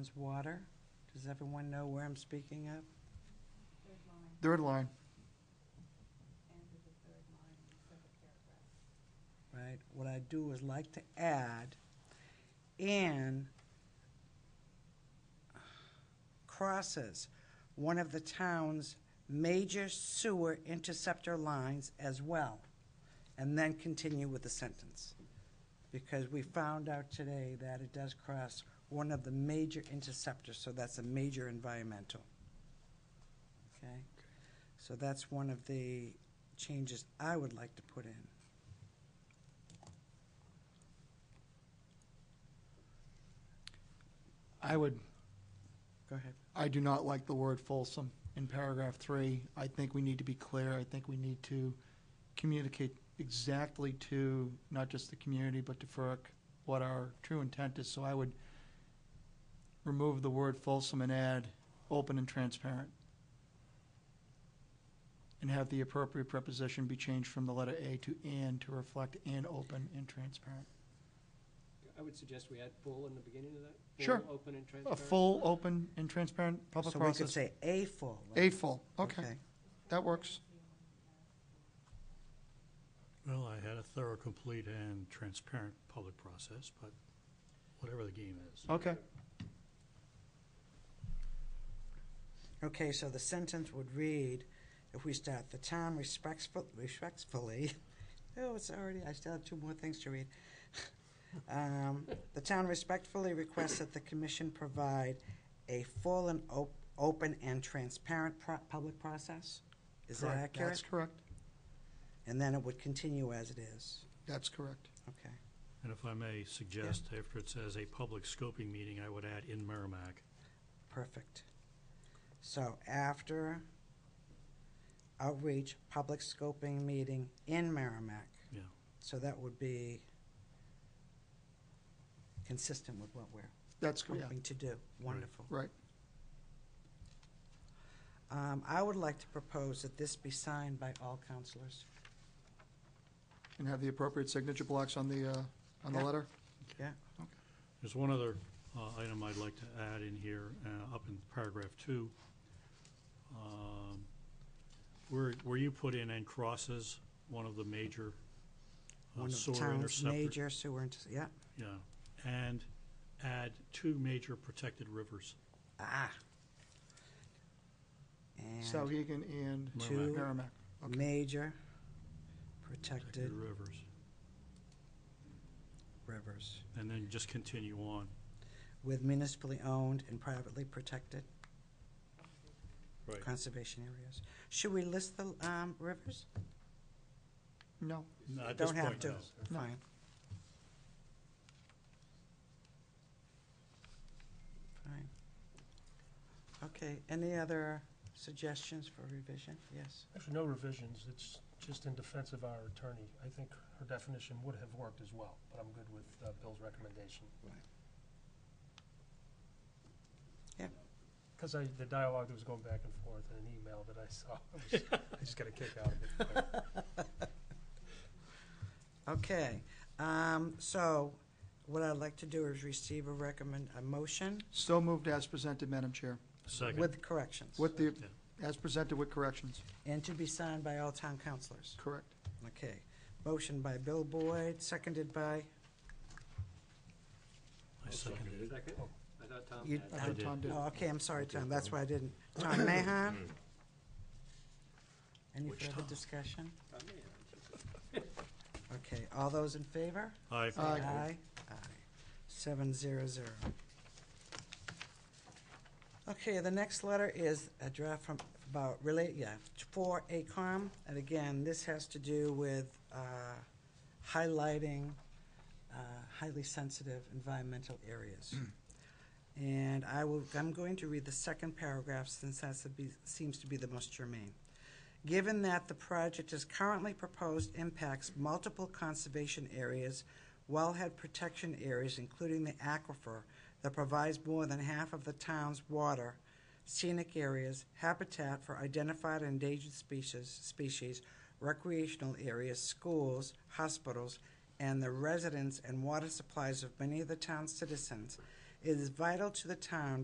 Is water. Does everyone know where I'm speaking of? Third line, Right? What I do is like to add in crosses one of the town's major sewer interceptor lines as well, and then continue with the sentence. Because we found out today that it does cross one of the major interceptors, so that's a major environmental. Okay? So that's one of the changes I would like to put in. I would, Go ahead. I do not like the word Folsom in paragraph three. I think we need to be clear. I think we need to communicate exactly to not just the community, but to FERC, what our true intent is. So I would remove the word Folsom and add open and transparent. And have the appropriate preposition be changed from the letter A to and to reflect and open and transparent. I would suggest we add full in the beginning of that. Sure. Full, open, and A transparent. full, open, and transparent public So we could process. say a full. right? A full, okay. That works. Well, I had a thorough, complete, and transparent public process, but whatever the game is. Okay. Okay, so the sentence would read, if we start, the town respectful, respectfully, oh, it's already, I still have two more things to read. Um, The town respectfully requests that the commission provide a full and op- open and transparent pro- public process? Is that Correct. accurate? That's correct. And then it would continue as it is, That's correct. okay. And if I may suggest, after it says a public scoping meeting, I would add in Merrimack. Perfect. So after outreach, public scoping meeting in Merrimack. Yeah. So that would be consistent with what we're That's correct. hoping to do. Wonderful. Right. Um, I would like to propose that this be signed by all counselors. And have the appropriate signature blocks on the, uh, on the Yeah. letter? Yeah, There's one other uh, item I'd like to add in here, uh, up in paragraph two. Um, Where, where you put in and crosses one of the major uh, one of the sewer town's interceptors. major sewer, inter- yeah. Yeah, and add two major protected rivers. Ah. And Sauhegan and Two. Merrimack. okay. major Protected protected rivers. rivers. And then just continue on. with municipally owned and privately protected Right. conservation areas. Should we list the um, rivers? No, At this Don't have point, to. no. No. Fine. Fine. Okay, any other suggestions for revision? Yes. Actually, no revisions, it's just in defense of our attorney. I think her definition would have worked as well, but I'm good with uh, Bill's recommendation. Right. Yeah. Because I, the dialogue that was going back and forth in an email that I saw, I was- I just got a kick out of it. Okay, um, so what I'd like to do is receive a recommend, a motion so moved as presented, Madam Chair, Second, with corrections. with the, as presented with corrections, And to be signed by all town councilors. correct. Okay, motion by Bill Boyd, seconded by, I seconded it. Second? Oh. I thought Tom You- had. I it. I thought did. Tom did. oh, okay, I'm sorry, Tom, that's why I didn't. Tom Mahan? Any Mm. Which further Tom? discussion? I may have. Okay, all those in favor? Aye. Aye. Aye, aye. Seven zero zero. Okay, the next letter is a draft from, about, really, yeah, for ACOM. And again, this has to do with uh, highlighting uh, highly sensitive environmental areas. And I will, I'm going to read the second paragraph since that seems to be the most germane. Given that the project is currently proposed impacts multiple conservation areas, wellhead protection areas, including the aquifer that provides more than half of the town's water, scenic areas, habitat for identified and endangered species, species, recreational areas, schools, hospitals, and the residents and water supplies of many of the town's citizens, It is vital to the town